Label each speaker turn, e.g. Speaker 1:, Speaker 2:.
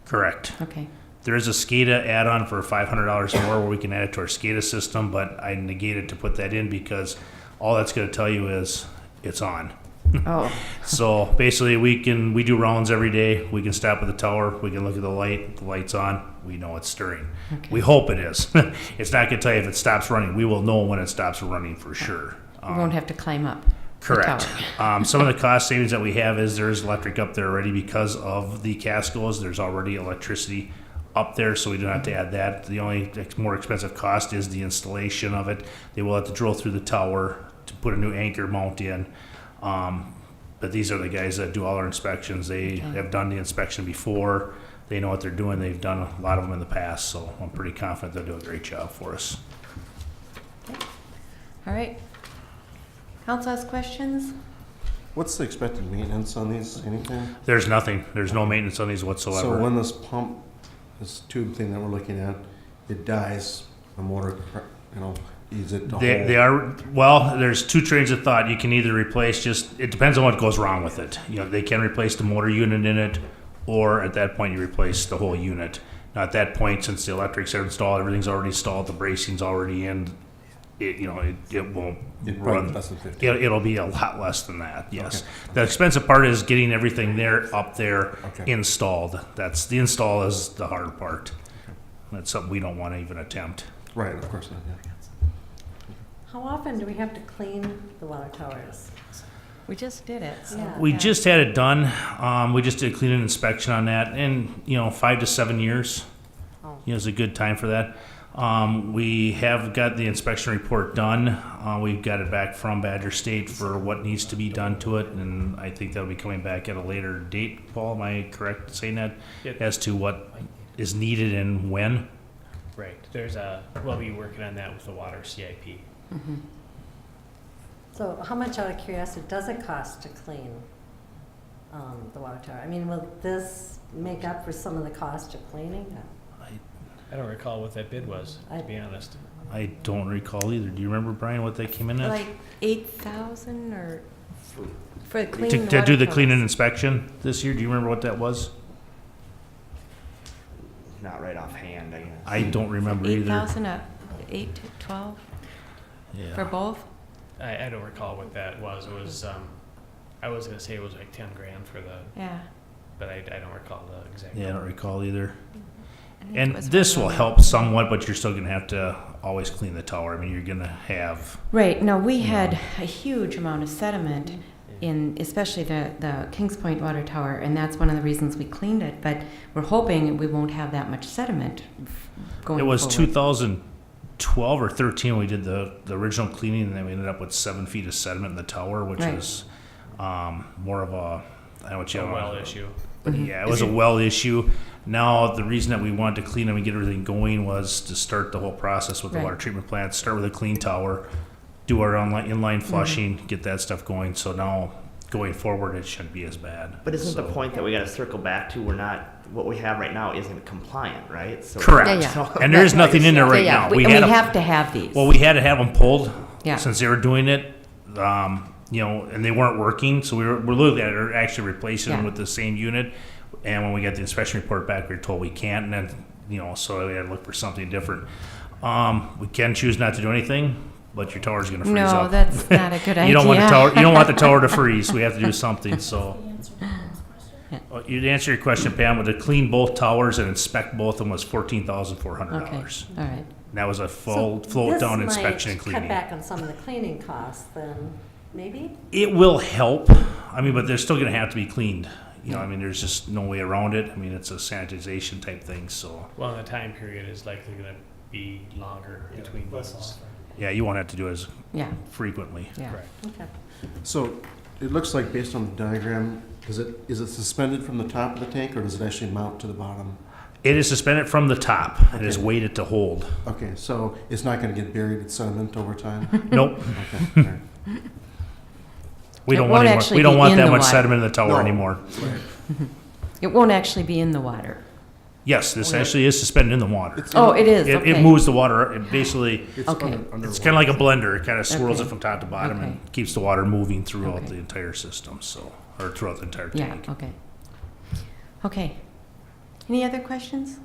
Speaker 1: Correct.
Speaker 2: Okay.
Speaker 1: There is a SCADA add-on for five hundred dollars more where we can add it to our SCADA system, but I negated to put that in because all that's gonna tell you is it's on.
Speaker 2: Oh,
Speaker 1: So basically, we can, we do rounds every day. We can stop at the tower. We can look at the light. The light's on. We know it's stirring. We hope it is. it's not going to tell you if it stops running. We will know when it stops running for sure.
Speaker 2: you won't have to climb up. the
Speaker 1: Correct.
Speaker 2: tower.
Speaker 1: Um, some of the cost savings that we have is there is electric up there already because of the Cascos. There's already electricity up there, so we don't have to add that. The only ex- more expensive cost is the installation of it. They will have to drill through the tower to put a new anchor mount in. Um, but these are the guys that do all our inspections. They have done the inspection before. They know what they're doing. They've done a lot of them in the past, so I'm pretty confident they'll do a great job for us.
Speaker 2: All right. Council has questions?
Speaker 3: What's the expected maintenance on these, anything?
Speaker 1: There's nothing. There's no maintenance on these whatsoever.
Speaker 3: So when this pump, this tube thing that we're looking at, it dies, the motor, you know, is it the
Speaker 1: They,
Speaker 3: whole-
Speaker 1: they are well. There's two trains of thought. You can either replace just. It depends on what goes wrong with it. You know, they can replace the motor unit in it, or at that point you replace the whole unit. Now at that point, since the electrics are installed, everything's already installed, the bracing's already in. It you know it, it won't
Speaker 3: It runs
Speaker 1: run.
Speaker 3: less than 50.
Speaker 1: It, it'll be a lot less than that. Yes. The expensive part is getting everything there up there
Speaker 3: Okay.
Speaker 1: installed. That's the install is the hard part. That's something we don't want to even attempt.
Speaker 3: Right, of course not, yeah.
Speaker 4: How often do we have to clean the water towers?
Speaker 2: We just did it, so.
Speaker 4: Yeah.
Speaker 1: We just had it done. Um, we just did a clean and inspection on that, and you know, five to seven years,
Speaker 4: Oh.
Speaker 1: you know, is a good time for that. Um, we have got the inspection report done. Uh, we've got it back from Badger State for what needs to be done to it, and I think that'll be coming back at a later date. Paul, am I correct in saying that
Speaker 5: Yeah.
Speaker 1: as to what is needed and when?
Speaker 5: Right, there's a, we'll be working on that with the water CIP.
Speaker 2: Mm-hmm.
Speaker 4: So how much out of curiosity does it cost to clean um, the water tower? I mean, will this make up for some of the cost of cleaning?
Speaker 5: I don't recall what that bid was, to be honest.
Speaker 1: I don't recall either. Do you remember Brian what they came in at
Speaker 2: Like eight thousand or for
Speaker 1: to,
Speaker 2: cleaning
Speaker 1: to do the
Speaker 2: water
Speaker 1: clean and
Speaker 2: towers.
Speaker 1: inspection this year? Do you remember what that was?
Speaker 6: Not right offhand, I guess.
Speaker 1: I don't remember
Speaker 2: Eight
Speaker 1: either.
Speaker 2: thousand, uh, eight to twelve
Speaker 1: Yeah.
Speaker 2: for both?
Speaker 5: I, I don't recall what that was, it was, um, I was gonna say it was like ten grand for the,
Speaker 2: Yeah.
Speaker 5: but I, I don't recall the exact.
Speaker 1: Yeah, I don't
Speaker 5: number.
Speaker 1: recall either.
Speaker 2: I think it
Speaker 1: And
Speaker 2: was
Speaker 1: this
Speaker 2: one
Speaker 1: will
Speaker 2: of
Speaker 1: help somewhat, but you're still gonna have to always clean the tower. I mean, you're gonna have,
Speaker 2: them. Right, no, we had a huge amount of sediment in, especially the, the Kings Point Water Tower, and that's one of the reasons we cleaned it, but we're hoping we won't have that much sediment going
Speaker 1: it was two
Speaker 2: forward.
Speaker 1: thousand twelve or thirteen, we did the, the original cleaning, and then we ended up with seven feet of sediment in the tower, which
Speaker 2: Right.
Speaker 1: is, um, more of a, I don't know what
Speaker 5: It's
Speaker 1: you.
Speaker 5: a well issue.
Speaker 1: But yeah, it was a well issue. Now, the reason that we wanted to clean them and get everything going was to start the whole process with the
Speaker 2: Right.
Speaker 1: water treatment plant, start with a clean tower, do our online, inline flushing, get that stuff going. So now, going forward, it shouldn't be as bad.
Speaker 6: But isn't the
Speaker 1: So-
Speaker 6: point that we gotta circle back to, we're not, what we have right now isn't compliant, right? So-
Speaker 1: Correct.
Speaker 2: Yeah, yeah.
Speaker 1: And there is
Speaker 2: Right.
Speaker 1: nothing in there right
Speaker 2: Yeah, yeah.
Speaker 1: now.
Speaker 2: We- And
Speaker 1: had
Speaker 2: we
Speaker 1: a-
Speaker 2: have to have these.
Speaker 1: Well, we had to have them pulled
Speaker 2: Yeah.
Speaker 1: since they were doing it, um, you know, and they weren't working. So we were, we're looking at it, actually replacing them
Speaker 2: Yeah.
Speaker 1: with the same unit. And when we got the inspection report back, we were told we can't. And then, you know, so we had to look for something different. Um, we can choose not to do anything, but your tower's going to freeze
Speaker 2: No,
Speaker 1: up.
Speaker 2: that's not a good
Speaker 1: You don't want the
Speaker 2: idea.
Speaker 1: tower. You don't want the tower to freeze. We have to do something. So.
Speaker 7: answer Pam's question?
Speaker 1: Uh, You'd answer your question, Pam, with to clean both towers and inspect both of them was fourteen thousand four hundred
Speaker 2: Okay,
Speaker 1: dollars.
Speaker 2: all right.
Speaker 1: That was a full
Speaker 4: So
Speaker 1: float down inspection and
Speaker 4: This might cut
Speaker 1: cleaning.
Speaker 4: back on some of the cleaning costs then, maybe?
Speaker 1: It will help. I mean, but they're still gonna have to be cleaned. You know, I mean, there's just no way around it. I mean, it's a sanitization type thing, so,
Speaker 5: Well, and the time period is likely gonna be longer between those.
Speaker 1: yeah, you won't have to do it as
Speaker 2: Yeah,
Speaker 1: frequently.
Speaker 2: yeah.
Speaker 5: Correct.
Speaker 4: Okay.
Speaker 3: So it looks like based on the diagram, is it, is it suspended from the top of the tank or does it actually mount to the bottom?
Speaker 1: It is suspended from the top. It is
Speaker 3: Okay.
Speaker 1: weighted to hold.
Speaker 3: Okay, so it's not gonna get buried in sediment over time?
Speaker 2: Hmm.
Speaker 1: Nope,
Speaker 3: Okay, all right.
Speaker 1: we
Speaker 2: It
Speaker 1: don't
Speaker 2: won't
Speaker 1: want any more,
Speaker 2: actually
Speaker 1: we don't
Speaker 2: be
Speaker 1: want
Speaker 2: in
Speaker 1: that
Speaker 2: the
Speaker 1: much
Speaker 2: water.
Speaker 1: sediment in the tower
Speaker 3: No.
Speaker 1: anymore.
Speaker 2: It won't actually be in the water.
Speaker 1: Yes, this actually is suspended in the water.
Speaker 3: It's-
Speaker 2: Oh, it is,
Speaker 1: It,
Speaker 2: Oh, okay.
Speaker 1: it moves the water, it basically,
Speaker 3: It's
Speaker 2: Okay.
Speaker 3: under-
Speaker 2: It's
Speaker 1: It's
Speaker 3: underwater.
Speaker 1: kind of like a blender. It kind of swirls
Speaker 2: Okay.
Speaker 1: it from top to bottom
Speaker 2: Okay.
Speaker 1: and keeps the water moving throughout
Speaker 2: Okay.
Speaker 1: the entire system, so, or throughout the entire
Speaker 2: Yeah,
Speaker 1: tank.
Speaker 2: okay. Okay. Any other questions?